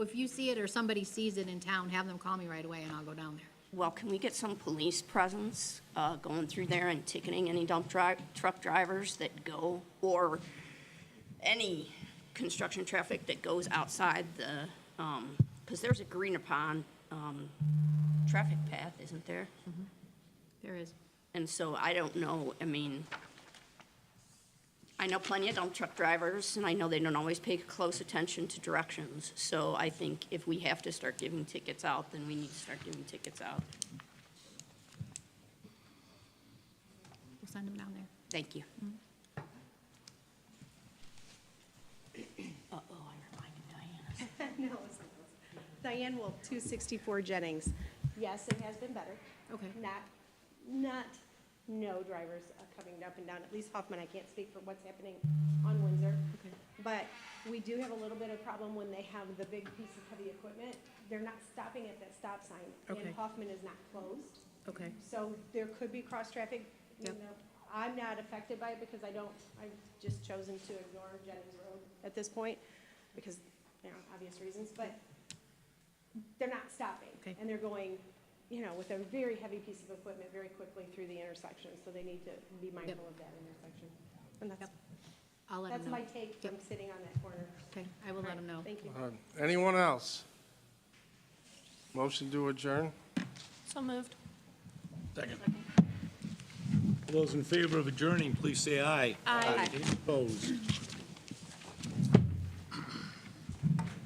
if you see it or somebody sees it in town, have them call me right away and I'll go down there. Well, can we get some police presence uh, going through there and ticketing any dump dri truck drivers that go, or any construction traffic that goes outside the, because there's a green upon um, traffic path, isn't there? There is. And so I don't know, I mean, I know plenty of dump truck drivers, and I know they don't always pay close attention to directions. So I think if we have to start giving tickets out, then we need to start giving tickets out. We'll send them down there. Thank you. Uh-oh, I reminded Diana. No, it's not. Diane Wolf, 264 Jennings. Yes, it has been better. Okay. Not, not, no drivers are coming up and down, at least Hoffman, I can't speak for what's happening on Windsor. Okay. But we do have a little bit of problem when they have the big piece of heavy equipment. They're not stopping at that stop sign. Okay. And Hoffman is not closed, Okay. so there could be cross-traffic. You Yep. know, I'm not affected by it because I don't, I've just chosen to ignore Jennings Road at this point because, you know, obvious reasons, but they're not stopping. Okay. And they're going, you know, with a very heavy piece of equipment very quickly through the intersection, so they need to be mindful of that intersection. And that's, I'll let them that's know. my take from sitting on that corner. Okay, I will let them know. Thank you. Uh, Anyone else? Motion to adjourn? All those in favor of adjourning, please say aye. Aye. Opposed?